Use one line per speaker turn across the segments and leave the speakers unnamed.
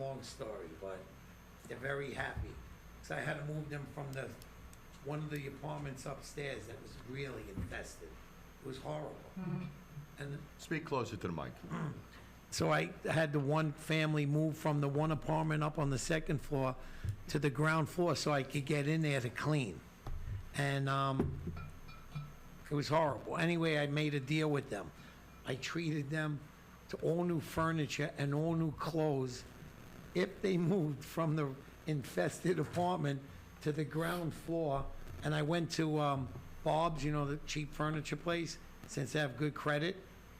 long story, but they're very happy. Because I had to move them from the, one of the apartments upstairs that was really infested. It was horrible. And
Speak closer to the mic.
so I had the one family move from the one apartment up on the second floor to the ground floor so I could get in there to clean. And um, it was horrible. Anyway, I made a deal with them. I treated them to all new furniture and all new clothes if they moved from the infested apartment to the ground floor. And I went to um, Bob's, you know, the cheap furniture place, since they have good credit.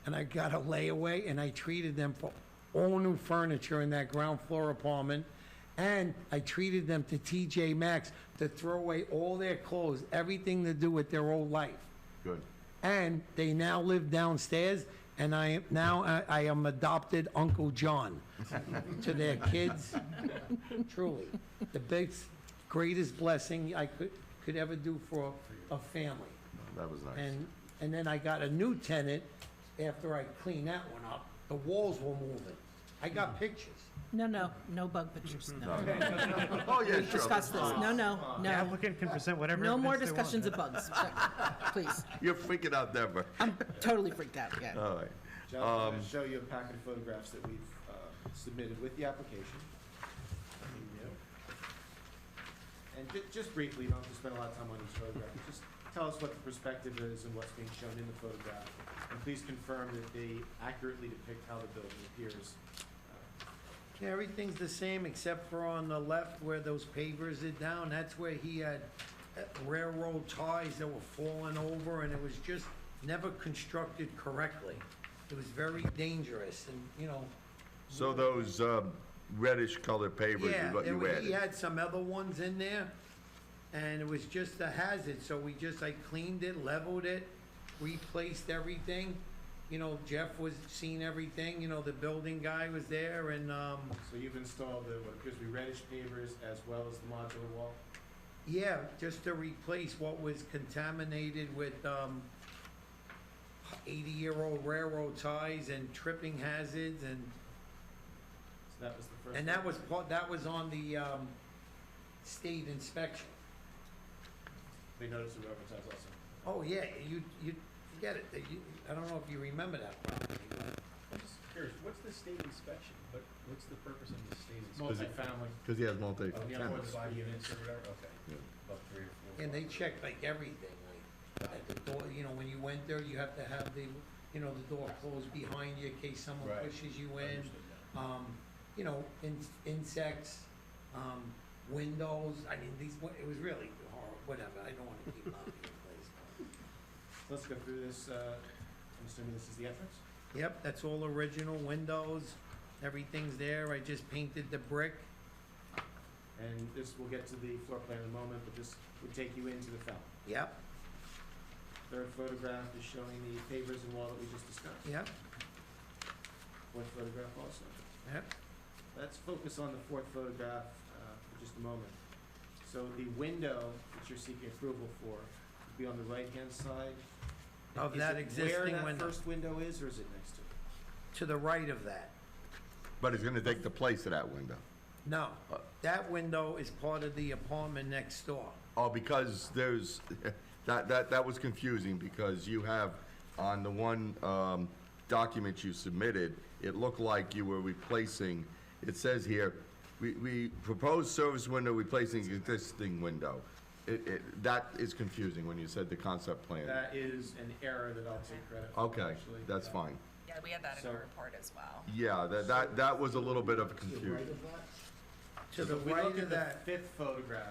And I got a layaway and I treated them for all new furniture in that ground floor apartment. And I treated them to TJ Maxx to throw away all their clothes, everything to do with their old life.
Good.
And they now live downstairs, and I am, now I- I am adopted Uncle John to their kids. Truly, the biggest, greatest blessing I could, could ever do for a family.
That was nice.
And, and then I got a new tenant after I cleaned that one up. The walls were moving. I got pictures.
No, no, no bug pictures, no.
Oh, yeah, sure.
Discuss this, no, no,
The
no.
applicant can present whatever.
No more
evidence they want.
discussions of bugs, please.
You're freaking out, Deborah.
I'm totally freaked out, yeah.
All right.
John, I'm going to show you a packet of photographs that we've uh, submitted with the application. And ju- just briefly, don't have to spend a lot of time on each photograph, just tell us what the perspective is and what's being shown in the photograph. And please confirm that they accurately depict how the building appears.
Everything's the same except for on the left where those pavers are down, that's where he had uh, railroad ties that were falling over and it was just never constructed correctly. It was very dangerous and, you know,
So those um, reddish colored pavers
yeah,
is what
there
you
was- he
added?
had some other ones in there and it was just a hazard, so we just, I cleaned it, leveled it, replaced everything. You know, Jeff was, seen everything, you know, the building guy was there and, um,
So you've installed the, what appears to be reddish pavers as well as the modular wall.
Yeah, just to replace what was contaminated with, um, eighty-year-old railroad ties and tripping hazards and,
So that was the first.
and that was part, that was on the, um, state inspection.
They noticed the railroad ties also.
Oh, yeah, you, you, forget it, that you, I don't know if you remember that property, but
I'm just curious, what's the state inspection? What, what's the purpose of the state
It's
inspection?
multifamily,
Because he has multi.
Oh, yeah, more than five units or whatever, okay.
Yeah.
About three or four.
and they checked like everything, like, at the door, you know, when you went there, you have to have the, you know, the door closed behind you in case someone
Right.
pushes you in.
Understood now.
um, you know, in, insects, um, windows, I mean, these, wa- it was really horrible, whatever, I don't wanna keep up the place.
let's go through this, uh, I'm assuming this is the entrance?
Yep, that's all original windows, everything's there, I just painted the brick.
And this, we'll get to the floor plan in a moment, but this would take you into the fountain.
Yep,
Third photograph is showing the pavers and wall that we just discussed.
yep,
Fourth photograph also.
yep,
Let's focus on the fourth photograph uh, for just a moment. So the window that you're seeking approval for would be on the right-hand side.
of
Is
that
it
existing
Where that
window,
first window is, or is it next to it?
to the right of that,
But it's gonna take the place of that window.
no,
Uh,
that window is part of the apartment next door.
Oh, because there's, that, that, that was confusing because you have, on the one, um, document you submitted, it looked like you were replacing, it says here, we, we propose service window replacing existing window. It, it, that is confusing when you said the concept plan.
That is an error that I'll take credit for.
Okay,
actually.
that's fine.
Yeah, we had that in
So-
our report as well.
Yeah, that, that, that was a little bit of confusion.
To the
If we
right
look
of
at the
that,
fifth photograph,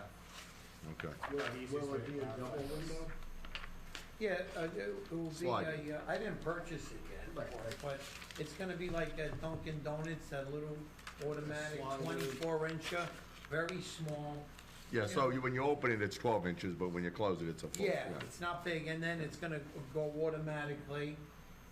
Okay.
you'll have the easiest way to identify this.
yeah, uh, it will be,
Slide.
a, uh, I didn't purchase it yet,
Right, right.
but it's gonna be like that Dunkin' Donuts, that little automatic
Swan
twenty-four incher, very small.
Yeah, so you- when you open it, it's twelve inches, but when you close it, it's a four.
Yeah, it's not big, and then it's gonna go automatically.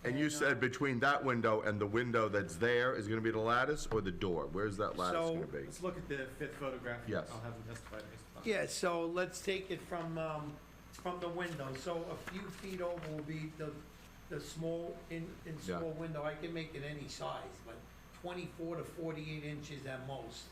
And you
uh,
said between that window and the window that's there is gonna be the lattice or the door? Where's that lattice
So,
gonna be?
Let's look at the fifth photograph. and
Yes.
I'll have them testify based upon.
uh, Yeah, so let's take it from, um, from the window, so a few feet over will be the, the small, in, in
Yeah.
small window, I can make it any size, but twenty-four to forty-eight inches at most.